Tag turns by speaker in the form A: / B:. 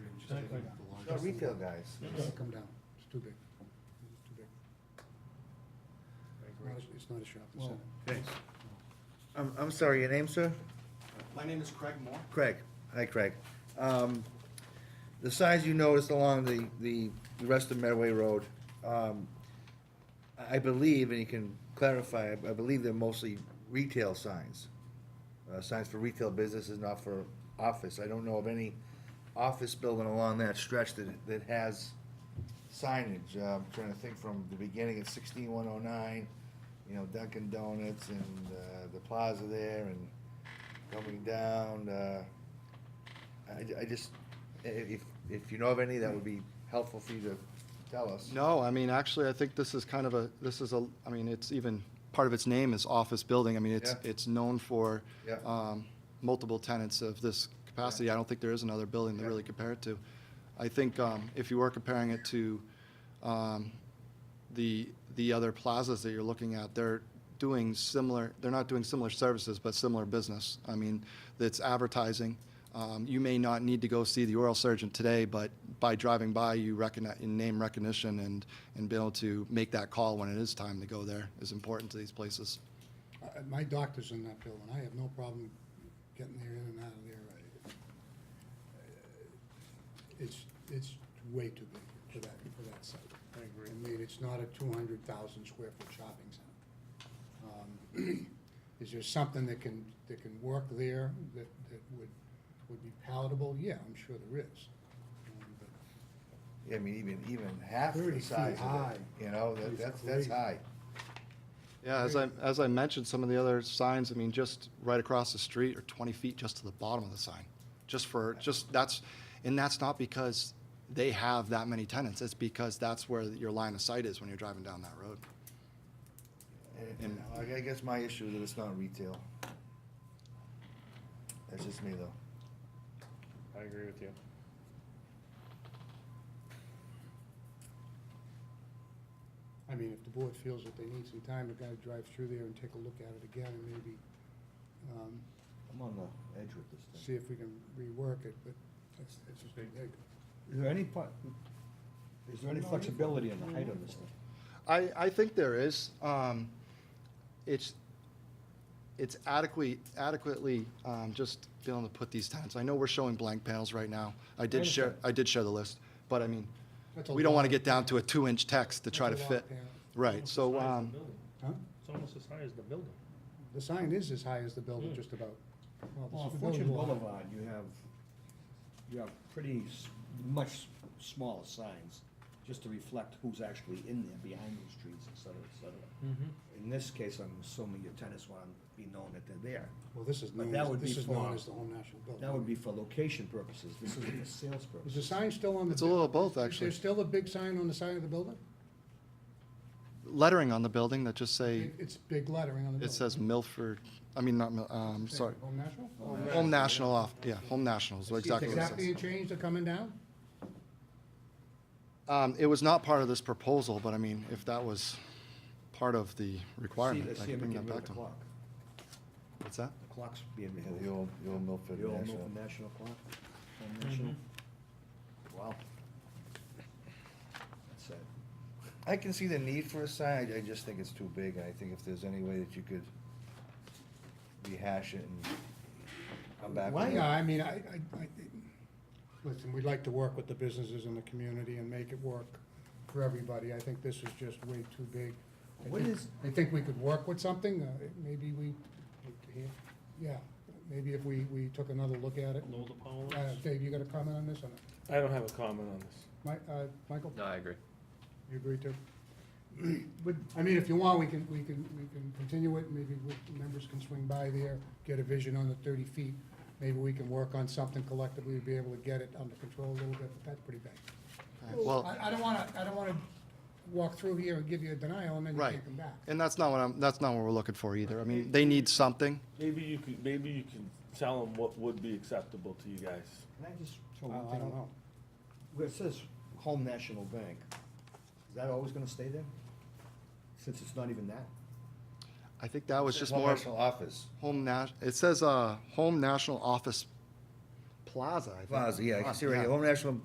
A: Exactly.
B: No, retail guys.
C: It's come down, it's too big, it's too big. It's not a- It's not a shopping
A: Well,
C: center.
B: Thanks. I'm, I'm sorry, your name, sir?
D: My name is Craig Moore.
B: Craig. Hi, Craig. Um, The size you noticed along the, the the rest of Medway Road, um, I I believe, and you can clarify, I believe they're mostly retail signs. Uh, Signs for retail businesses, not for office. I don't know of any office building along that stretch that, that has signage. Uh, I'm trying to think from the beginning at sixteen one oh nine, you know, Dunkin' Donuts and uh, the plaza there and coming down, uh, I, I just, i- if, if you know of any, that would be helpful for you to tell us.
D: No, I mean, actually, I think this is kind of a, this is a, I mean, it's even, part of its name is office building. I mean, it's,
B: Yeah.
D: it's known for
B: Yeah.
D: um, multiple tenants of this capacity. I don't think there is another building to
B: Yeah.
D: really compare it to. I think um, if you were comparing it to um, the, the other plazas that you're looking at, they're doing similar, they're not doing similar services, but similar business. I mean, it's advertising. Um, You may not need to go see the oral surgeon today, but by driving by, you recognize, in name recognition and, and be able to make that call when it is time to go there is important to these places.
C: I- I- My doctor's in that building, I have no problem getting there in and out of there. I- It's, it's way too big for that, for that site. I agree. I mean, it's not a two hundred thousand square foot shopping center. Um, Is there something that can, that can work there that, that would, would be palatable? Yeah, I'm sure there is. Um, but
B: I mean, even, even half the
C: 30 feet
B: size of
C: high.
B: it, you know, that-
C: It's
B: that's, that's
C: crazy.
B: high.
D: Yeah, as I, as I mentioned, some of the other signs, I mean, just right across the street or 20 feet just to the bottom of the sign, just for, just, that's, and that's not because they have that many tenants, it's because that's where your line of sight is when you're driving down that road.
B: And- and uh, I I guess my issue is that it's not retail. That's just me, though.
A: I agree with you.
C: I mean, if the board feels that they need some time, we gotta drive through there and take a look at it again and maybe, um,
B: I'm on the edge with this
C: see if we can rework it, but it's, it's just big.
E: Is there any, po- is there any flexibility in the height of this thing?
D: I, I think there is. Um, it's, it's adequately, adequately, um, just being able to put these tenants. I know we're showing blank panels right now. I did share, I did share the list, but I mean,
C: That's a
D: we don't want
C: lot.
D: to get down to a two-inch text to try to
C: That's a lot,
D: fit.
C: yeah.
D: Right, so, um,
C: Huh?
A: It's almost as high as the building.
C: The sign is as high as the
D: Hmm.
C: building, just about. Well, this
E: Well,
C: is the
E: Fortune
C: building wall.
E: Boulevard, you have, you have pretty s- much s- smaller signs, just to reflect who's actually in there, behind those trees, et cetera, et cetera. In this case, I'm assuming your tenants want to be known that they're there.
C: Well, this is
E: But
C: known,
E: that
C: as-
E: would
C: this
E: be
C: is known
E: for-
C: as the Home National Building.
E: That would be for location purposes, this isn't for sales
C: Is the
E: purposes.
C: sign still on the?
D: It's a little of both,
C: buil-
D: actually.
C: Is there still a big sign on the side of the building?
D: lettering on the building that just say,
C: It- It's big lettering on the building.
D: it says Milford, I mean, not, Mil- um,
C: Say,
D: sorry.
C: Home National?
E: Oh,
D: Home National off, yeah, Home National is
E: It's
D: exactly
C: Is
D: what it
C: that
D: says.
C: being changed or coming down?
D: Um, it was not part of this proposal, but I mean, if that was part of the requirement,
E: See-
D: I
E: see
D: can
E: if we
D: bring
E: can
D: that
E: move
D: back
E: the
D: to them.
E: clock.
D: What's that?
E: The clock's being
B: thing.
E: removed.
B: The old, the old Milford
E: The old
B: National.
E: Milford National Clock, Home National.
B: Mm-hmm.
E: Wow. That's sad.
B: I can see the need for a sign, I- I just think it's too big, and I think if there's any way that you could rehash it and come back with
C: Why,
B: it.
C: yeah, I mean, I, I, I, listen, we'd like to work with the businesses in the community and make it work for everybody. I think this is just way too big. I
E: What
C: think-
E: is-
C: I think we could work with something, uh, maybe we, yeah, maybe if we, we took another look at it.
A: Lower the power
C: Uh,
A: lines.
C: Dave, you got a comment on this or not?
F: I don't have a comment on this.
C: Mi- uh, Michael,
F: No, I agree.
C: you agree too? I mean, if you want, we can, we can, we can continue it, maybe we- members can swing by there, get a vision on the thirty feet. Maybe we can work on something collectively, to be able to get it under control a little bit, but that's pretty big.
D: All right, Well,
C: I, I don't wanna, I don't wanna walk through here and give you a denial and then you
D: Right.
C: can't come back.
D: and that's not what I'm, that's not what we're looking for either. I mean, they need something.
F: Maybe you could, maybe you can tell them what would be acceptable to you guys.
E: Can I just
C: I
E: throw
B: Oh,
E: one
C: I
E: thing
C: don't
E: out?
C: know.
E: Where it says Home National Bank, is that always gonna stay there? Since it's not even that?
D: I think that was
B: Oh, It's
D: just
B: Home
D: more of
B: National Office.
D: Home Nash, it says, uh, Home National Office Plaza, I think.
B: Plaza, yeah, I can see right here,
D: Yeah.
B: Home National